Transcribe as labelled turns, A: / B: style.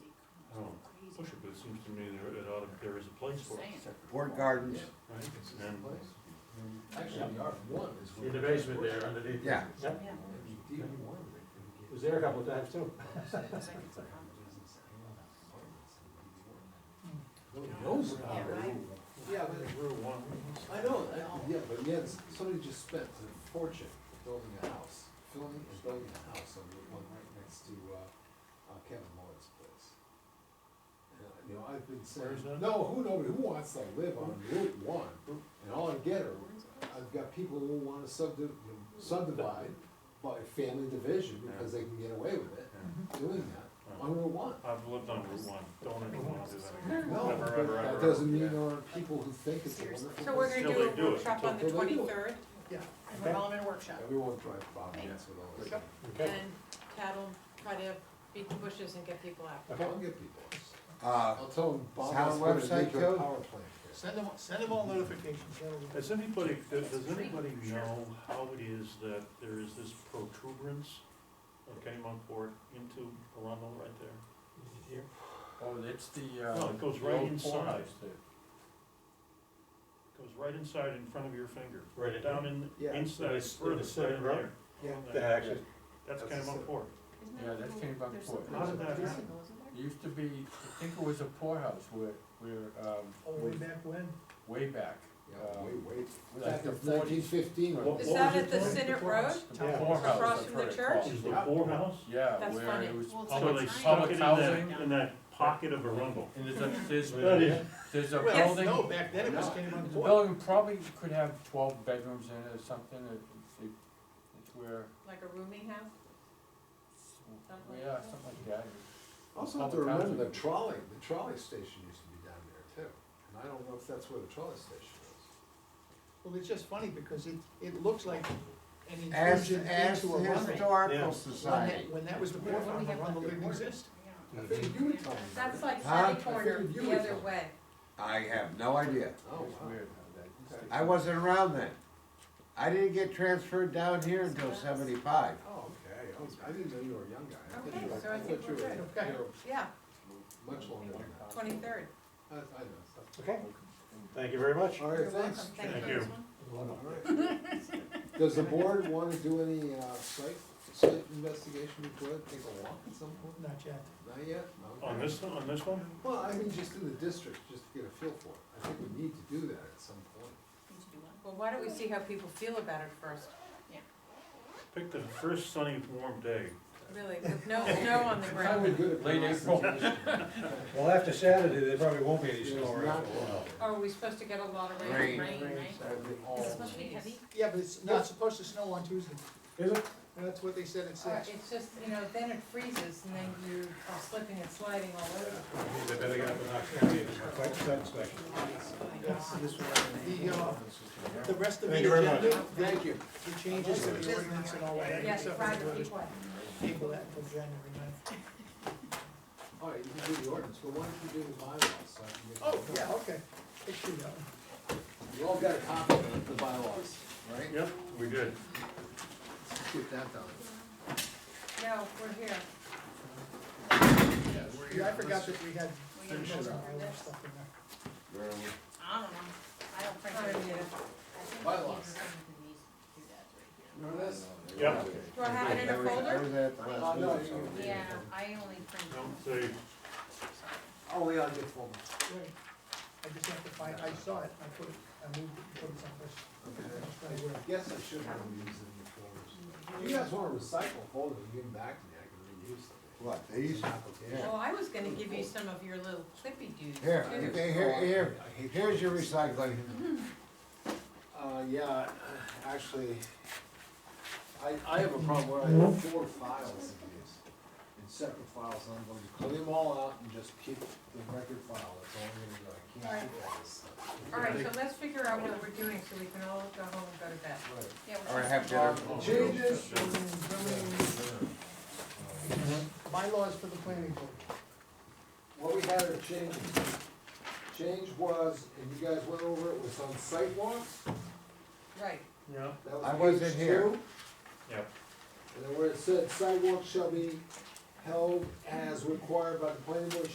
A: push it, but it seems to me there, it ought, to- there is a place for it,
B: Saying.
C: Board gardens,
A: right? And
D: Actually, the R one is.
E: In the basement there underneath.
C: yeah,
E: Yep,
D: D one.
E: it was there a couple of times too.
D: Nobody knows about
B: Yeah,
D: it.
B: right.
D: Yeah,
A: Rule one.
D: but, I know, I- yeah, but yet, somebody just spent a fortune building a house, filming and building a house on the one right next to, uh, uh, Kevin Moore's place. And, uh, You know, I've been
A: Where is
D: saying,
A: that?
D: no, who, nobody, who wants to live on Route one? And all I get are I've got people who wanna subdi- you know, subdivide by family division because they can get away with it, doing that on Route one.
A: I've lived on Route one, don't ever wanna do that again.
D: No,
A: Ever,
D: but
A: ever, ever,
D: that
A: ever.
D: doesn't mean there aren't people who think it's a
B: Seriously.
D: wonderful.
F: So we're
D: place.
F: gonna
A: Till
F: do
A: they
F: a
A: do it.
F: workshop on the
D: Till they do it.
F: twenty-third, and we're all in a workshop.
D: Everyone drive by, yes, with all this.
F: Yep.
E: Okay.
F: And Tad'll try to beat the bushes and get people out.
D: I'll get people.
C: uh,
D: I'll tell them Bob
C: Town
D: has put a
C: website
D: nuclear
C: code?
D: power plant here.
G: Send them, send them all notifications, that'll be-
A: Has anybody, does does anybody know how it is that there is this protuberance of Kennebunkport into Arundel right there?
H: Oh, it's the, uh.
A: No, it goes
H: the
A: right
H: old
A: inside.
H: courthouse there.
A: Goes right inside in front of your finger,
E: Right in
A: down in,
G: Yeah.
A: inside,
E: It's in the
A: further, right in
E: center, right?
A: there.
E: The access,
A: That's
D: That's the
A: Kennebunkport.
H: Yeah, that came about before.
A: How did that happen?
H: It used to be, I think it was a poorhouse where, where, um,
G: Oh, way back when?
H: way back.
D: Yeah,
A: Uh,
H: um,
D: wait, wait.
H: like
D: Back
H: the
D: in
H: 40s.
D: nineteen fifteen.
A: What-
F: Is
A: what
F: that at
A: was it
F: the
A: called?
F: Senate Road?
H: The
E: Yeah.
H: poorhouse,
F: Across
H: I've
F: from the
H: heard it
F: church?
H: called.
A: Is the poorhouse?
H: Yeah,
F: That's
H: where
F: funny.
H: it was
B: Well, it's
A: So they
H: public,
B: like-
A: stuck
H: public
A: it in that,
H: housing,
A: in that pocket of Arundel.
H: and there's a, there's,
A: That is,
H: there's a
G: Well,
H: building.
G: no, back then it was came
H: The
G: on board.
H: building probably could have twelve bedrooms in it or something, it, it- it's where,
F: Like a rooming house?
H: yeah, something like that.
D: Also have to
H: Public
D: remember the
H: housing.
D: trolley, the trolley station used to be down there too. And I don't know if that's where the trolley station is.
G: Well, it's just funny because it, it looks like an
C: ask,
G: intrusion
C: ask
G: into
C: the
G: a Arundel.
C: historical
A: Yeah.
G: When
C: society.
G: that, when that was the port farm, Arundel didn't exist.
D: I figured you would tell me.
F: That's like
C: Huh?
F: Sunny Corner,
D: Figured you
F: the
D: would
F: other
D: tell.
F: way.
C: I have no idea.
D: Oh,
H: It's
D: wow.
H: weird how that.
C: I wasn't around then. I didn't get transferred down here until seventy-five.
D: Oh, okay. I was- I didn't know you were a young guy. I thought
F: Okay,
D: you were-
F: so I
D: thought
F: think
D: you
F: we're
D: were-
G: good.
D: you were
F: Yeah,
D: Much longer than that.
F: twenty-third.
D: I, I know.
E: okay, thank you very much.
D: All
F: You're
D: right,
F: welcome.
D: thanks.
A: Thank
F: Thank
A: you.
F: you. Osman.
D: Alright. Does the board wanna do any, uh, site, site investigation before, it? take a walk at some point?
G: Not yet.
D: Not yet? Okay.
A: on this, one- on this one?
D: Well, I mean, just in the district, just to get a feel for it, I think we need to do that at some point.
F: Well, why don't we see how people feel about it first,
A: Pick the first sunny, warm day.
F: really, with no snow on the
D: It's probably
F: ground.
D: good at
H: Late
D: last
H: April.
D: situation.
E: Well, after Saturday, there probably won't be any
D: There's
E: snow
D: not
E: around.
D: a lot.
F: Are we supposed to get a lot of rain?
C: Rain.
D: That'd be all-
B: Is it supposed to be
F: Jeez.
B: heavy?
G: Yeah, but it's not supposed to snow on Tuesday.
E: Is it?
G: That's what they said at
F: Or
G: six.
F: it's just, you know, then it freezes and then you are slipping and sliding all over.
E: They better get up and knock it down. Quite satisfactory.
G: The, uh, the rest of the
E: Thank you very much.
G: agenda,
D: Thank you.
G: the changes to the ordinance and all that.
F: Yes,
G: except for the
F: private
G: voters,
F: people.
G: Table that until January ninth.
D: All right, you can do the ordinance, but why don't you do the bylaws, so I can get.
G: Oh, yeah, okay. It should go.
D: You all got a copy of the bylaws, right?
A: Yep, we did.
D: Let's Get that done.
F: No, we're here.
G: Yeah, I forgot that we had
B: We
G: most
B: have
G: of
B: those
G: our
B: over there.
G: stuff in there.
B: I don't know, I don't print
F: Sorry,
B: it.
F: Nita.
B: I think
D: Bylaws.
B: these are in these two guys right
D: Remember this?
A: Yep.
F: Do I have it in
C: I
F: a
C: was- I
F: folder?
C: was at the last
D: Oh, no,
C: meeting, so-
B: here. Yeah, I only print them.
A: Don't say,
D: Oh, we all get full.
G: Wait, I just have to find, I saw it, I put it, I moved it, put it someplace. That's
D: Okay.
G: probably where-
D: I guess I should have used them in the folders. If you guys wanna recycle folders, and give them back to me, I can reuse them.
C: What, these?
D: It's an application.
F: Well, I was gonna give you some of your little clippy dudes.
C: Here,
F: too.
C: okay, here, here,
D: I hate
C: here's your recycling.
F: Mm-hmm.
D: Uh, yeah, actually, I, I have a problem where I have four files of these, in separate files, and I'm going to clean them all out and just keep the record file, that's all I'm gonna do, I can't keep all this stuff.
F: All right, so let's figure out what we're doing so we can all go home and go to bed.
D: Right.
B: Yeah, we're
C: Or
B: just-
C: have dinner.
D: Uh, Changes from zoning,
G: Bylaws for the planning board.
D: what we had are changes. Change was, and you guys went over it, was on sidewalks,
F: Right,
A: yeah,
D: that was
C: I wasn't
D: page
C: here.
D: two.
A: Yep.
D: And then where it said sidewalks shall be held as required by the planning board